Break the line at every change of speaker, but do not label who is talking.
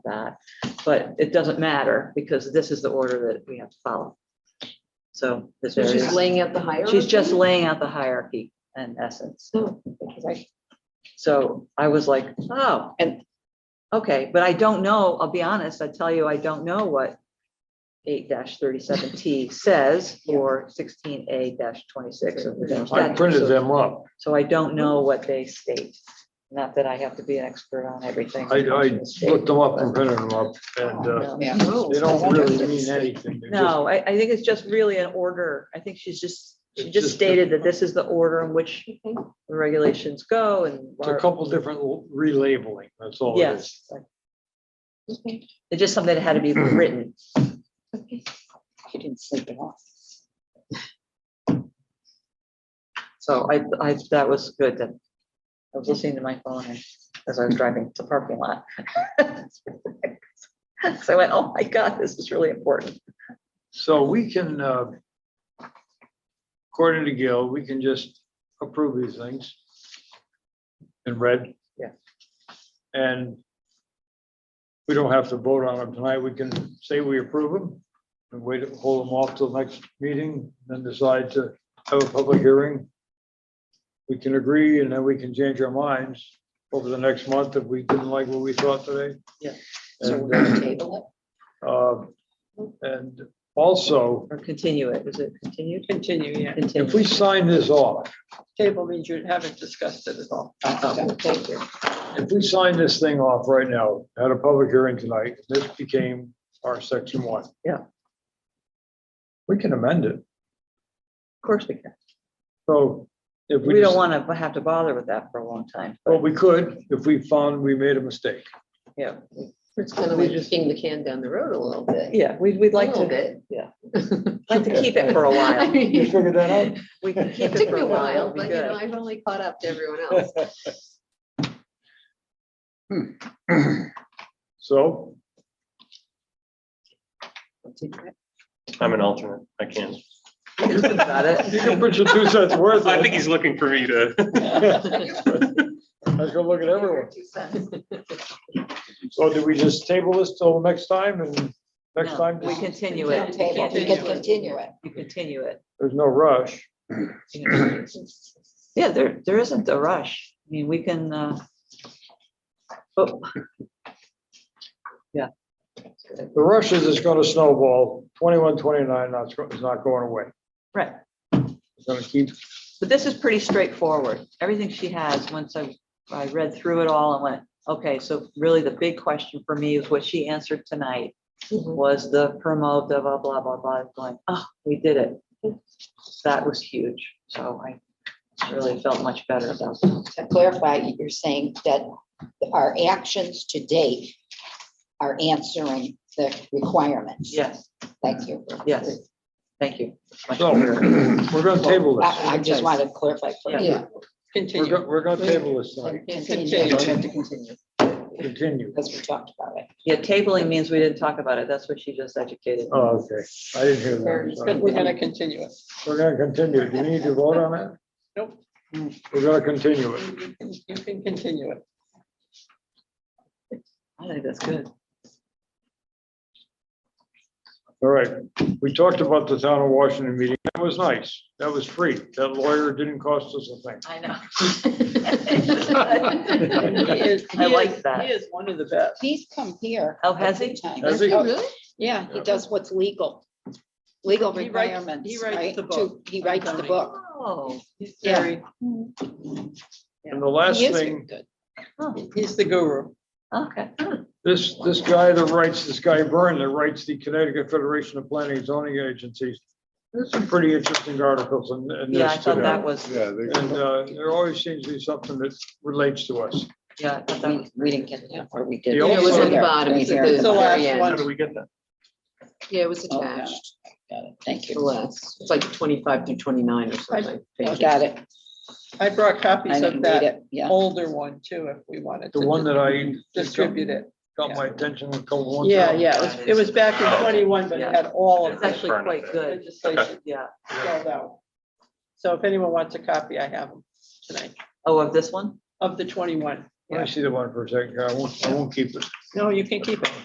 that. But it doesn't matter because this is the order that we have to follow. So this
So she's
is,
laying out the hierarchy.
she's just laying out the hierarchy in essence.
Oh, right.
So I was like, oh, and, okay, but I don't know, I'll be honest, I tell you, I don't know what eight thirty-seven T says or sixteen A twenty-six of the general
I
statute.
printed
So-
them up.
So I don't know what they state. Not that I have to be an expert on everything.
I, I looked them up and printed them up and uh,
No.
Yeah.
they don't really mean anything. They're just-
No, I, I think it's just really an order. I think she's just, she
It's
just
just
stated that this is the order in which the regulations go and.
It's a couple different relabeling, that's all it is.
Yes. It's just something that had to be written.
She didn't sleep it off.
So I, I, that was good that I was listening to my phone and- as I was driving to the parking lot. So I went, oh my God, this is really important.
So we can, uh, according to Gil, we can just approve these things in red.
Yeah.
And we don't have to vote on them tonight. We can say we approve them and wait, hold them off till next meeting, then decide to have a public hearing. We can agree and then we can change our minds over the next month if we didn't like what we thought today.
Yeah.
So we're
And,
gonna table it.
uh, And also,
Or continue it. Is it continued?
Continue, yeah.
if
Continue.
we sign this off,
Table means you haven't discussed it at all.
Oh,
Thank you.
if we sign this thing off right now, at a public hearing tonight, this became our section one.
Yeah.
We can amend it.
Of course we can.
So if we.
We don't
just-
want to have to bother with that for a long time.
Well,
but,
we could, if we found we made a mistake.
Yeah,
It's kind of like kicking the can down the road a little bit.
yeah, we'd, we'd like
A little
to,
bit.
yeah. like to keep it for a
I
while.
mean,
figured that out?
We can keep
It
it
took
for
me
a
a
while.
while,
It'll be
but you know,
good.
I've only caught up to everyone else.
So
I'm an alternate. I can't.
Think about
you
it.
can put your two cents worth. in.
I think he's looking for me to.
I was gonna look at everyone.
Two cents.
So do we just table this till next time and next
No,
time?
We continue it.
Table.
You
You
can't-
can
continue it.
you continue it.
There's no rush.
You know. Yeah, there, there isn't a rush. I mean, we can, uh, but
The rush is it's gonna snowball, twenty-one, twenty-nine, not, is not going away.
Right.
It's gonna keep,
But this is pretty straightforward. Everything she has, once I, I read through it all and went, okay, so really the big question for me is what she answered tonight
Mhm.
was the promo, blah, blah, blah, blah, blah, going, oh, we did it. That was huge. So I really felt much better about that.
to clarify, you're saying that our actions to date are answering the requirements.
Yes,
Thank you.
yes. Thank you. Much
so,
better.
we're gonna table this.
I, I just wanted to clarify. for you.
Yeah.
We're
Continue.
gonna, we're gonna table this tonight,
Continue, we have to continue,
continue.
because we talked about it.
Yeah, tabling means we didn't talk about it. That's what she just educated. me.
Oh, okay, I didn't hear that. I'm
But
sorry.
We're gonna continue it.
We're gonna continue, do you need to vote on that?
Nope.
We're gonna continue it.
You can- you can continue it.
I think that's good.
All right, we talked about the town of Washington meeting, that was nice, that was free, that lawyer didn't cost us a thing.
I know.
He is-
I
he
like
is-
that.
He is one of the best.
He's come here.
Oh, has he?
every time.
Has he?
Oh,
Yeah.
He does what's legal, legal
He writes- he
requirements,
writes
right?
the book.
to- He writes the book.
Oh,
He's
Yeah.
very,
And the last
He is
thing,
good.
he's the guru.
okay.
this, this guy that writes, this guy Byrne that writes the Connecticut Federation of Planning and Zoning Agencies, there's some pretty interesting articles in, in
Yeah, I
this
thought
today.
that was,
Yeah,
And, uh, there always seems to be something that relates to us.
yeah, I thought that was.
We we didn't get that, or we did.
The
It was
also-
on the bottom. He's at
It's
the
the
very
last
end.
one.
we get that?
Yeah, it was
Oh, got it.
attached.
Got it. Thank
The
you.
last, it's like twenty-five through twenty-nine or something.
I Got it.
I brought
I
copies
didn't
of
read
that
it. Yeah.
older one too, if we wanted to.
The one that I
Distribute it.
got my attention a couple months
Yeah,
ago.
yeah. it was- It was back in twenty-one, but it had all of
It's
the
actually quite good.
legislation
Yeah.
spelled out. So if anyone wants a copy, I have them tonight
Oh, of this one?
of the twenty-one.
Let me see the one for a second, I won't, I won't keep it.
No, you can keep it.